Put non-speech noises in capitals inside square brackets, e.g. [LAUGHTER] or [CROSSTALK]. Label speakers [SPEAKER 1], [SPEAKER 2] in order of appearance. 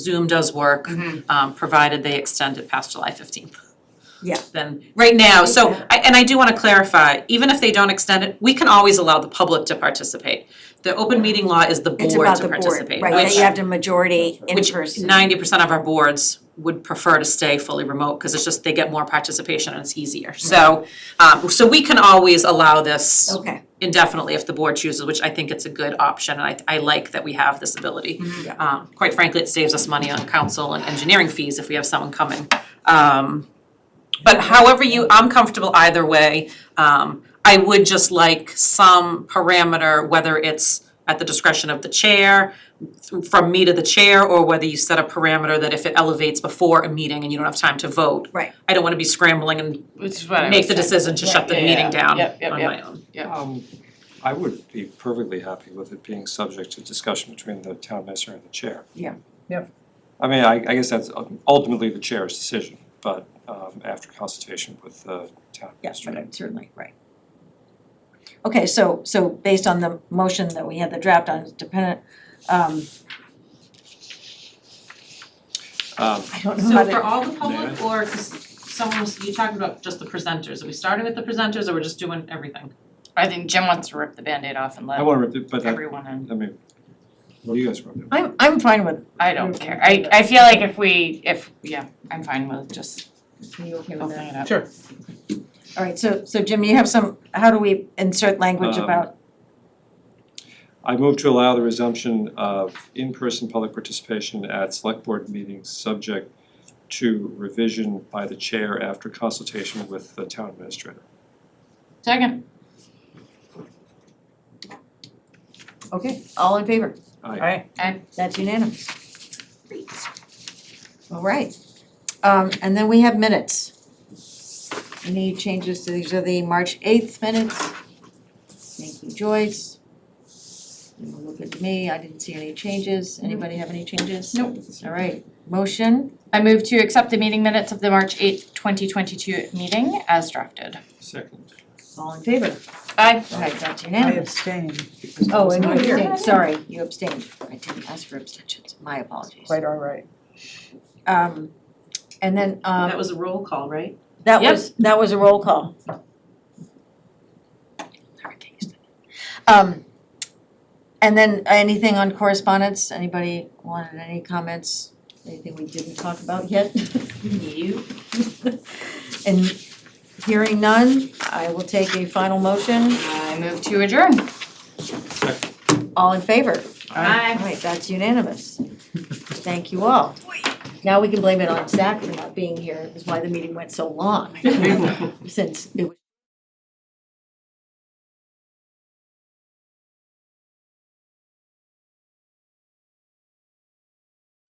[SPEAKER 1] Zoom does work,
[SPEAKER 2] Mhm.
[SPEAKER 1] um, provided they extend it past July fifteenth.
[SPEAKER 2] Yeah.
[SPEAKER 1] Then, right now, so,
[SPEAKER 2] Yeah.
[SPEAKER 1] I, and I do wanna clarify, even if they don't extend it, we can always allow the public to participate. The open meeting law is the board
[SPEAKER 2] It's
[SPEAKER 1] to
[SPEAKER 2] about the board,
[SPEAKER 1] participate,
[SPEAKER 2] right, that
[SPEAKER 1] which
[SPEAKER 2] you have to majority in
[SPEAKER 1] which
[SPEAKER 2] person.
[SPEAKER 1] ninety percent of our boards would prefer to stay fully remote, cause it's just, they get more participation and it's easier. So, um, so we can always allow this
[SPEAKER 2] Mm-hmm. Okay,
[SPEAKER 1] indefinitely if the board chooses, which I think it's a good option, and I I like that we have this ability.
[SPEAKER 2] Yeah.
[SPEAKER 1] Um quite frankly, it saves us money on council and engineering fees if we have someone coming. Um but however you, I'm comfortable either way. Um I would just like some parameter, whether it's at the discretion of the chair, from me to the chair, or whether you set a parameter that if it elevates before a meeting and you don't have time to vote.
[SPEAKER 2] Right.
[SPEAKER 1] I don't wanna be scrambling and
[SPEAKER 3] Which is what I was
[SPEAKER 1] make the
[SPEAKER 3] saying.
[SPEAKER 1] decision to shut the
[SPEAKER 3] Right, yeah,
[SPEAKER 1] meeting
[SPEAKER 3] yeah.
[SPEAKER 1] down
[SPEAKER 3] Yep, yep,
[SPEAKER 1] on
[SPEAKER 3] yep.
[SPEAKER 1] my own.
[SPEAKER 4] Um, I would be perfectly happy with it being subject to discussion between the town minister and the chair.
[SPEAKER 2] Yeah.
[SPEAKER 5] Yep.
[SPEAKER 4] I mean, I, I guess that's uh, ultimately the chair's decision, but, um, after consultation with the town
[SPEAKER 5] Yes,
[SPEAKER 4] administrator.
[SPEAKER 5] certainly, right.
[SPEAKER 2] okay, so so based on the motion that we had the draft on, it's dependent, um,
[SPEAKER 4] Um,
[SPEAKER 2] I don't know
[SPEAKER 1] So
[SPEAKER 2] how to.
[SPEAKER 1] for all the public or 'cause someone was, you talking about just the presenters, are we starting with the presenters or we're just doing everything?
[SPEAKER 3] I think Jim wants to rip the Band-Aid off and
[SPEAKER 4] I
[SPEAKER 3] let
[SPEAKER 4] wanna, rip it, but that,
[SPEAKER 3] everyone in.
[SPEAKER 4] I mean, what do you guys want to do?
[SPEAKER 2] I'm I'm fine with,
[SPEAKER 3] I don't care. I I feel like if we, if, yeah, I'm fine with just
[SPEAKER 2] are you okay with
[SPEAKER 3] opening
[SPEAKER 2] that?
[SPEAKER 3] it up.
[SPEAKER 5] Sure.
[SPEAKER 2] All right, so so Jim, you have some, how do we insert language
[SPEAKER 4] Um,
[SPEAKER 2] about,
[SPEAKER 4] I move to allow the resumption of in-person public participation at select board meetings subject to revision by the chair after consultation with the town administrator.
[SPEAKER 3] Second,
[SPEAKER 2] okay, all in favor,
[SPEAKER 4] Aye.
[SPEAKER 2] that's unanimous. All right, um, and then we have minutes. Any changes to these are the March eighth minutes? Thank you, Joyce. You Look at me, I didn't see any changes, anybody have any changes?
[SPEAKER 3] Nope.
[SPEAKER 2] All right, motion,
[SPEAKER 3] I move to accept the meeting minutes of the March eighth, twenty twenty-two meeting as drafted.
[SPEAKER 4] Second.
[SPEAKER 2] all in favor?
[SPEAKER 3] Aye.
[SPEAKER 2] All right, that's
[SPEAKER 5] I
[SPEAKER 2] unanimous.
[SPEAKER 5] abstain because I
[SPEAKER 2] Oh,
[SPEAKER 5] was
[SPEAKER 2] and you
[SPEAKER 5] not here.
[SPEAKER 2] abstained, sorry, you abstained, I didn't ask for abstentions, my apologies.
[SPEAKER 5] Quite all right.
[SPEAKER 2] Um, and then,
[SPEAKER 1] That
[SPEAKER 2] um,
[SPEAKER 1] was a roll call, right?
[SPEAKER 2] that
[SPEAKER 3] Yep.
[SPEAKER 2] was, that was a roll call. Sorry, can't use that. Um, and then anything on correspondence, anybody wanted any comments, anything we didn't talk about yet? You. [LAUGHS] And hearing none, I will take a final motion,
[SPEAKER 3] I move to adjourn.
[SPEAKER 2] all in favor?
[SPEAKER 3] Aye.
[SPEAKER 2] All right, that's unanimous. Thank you all.
[SPEAKER 3] [LAUGHS]
[SPEAKER 2] Now we can blame it on Zach for not being here, is why the meeting went so long, since it was.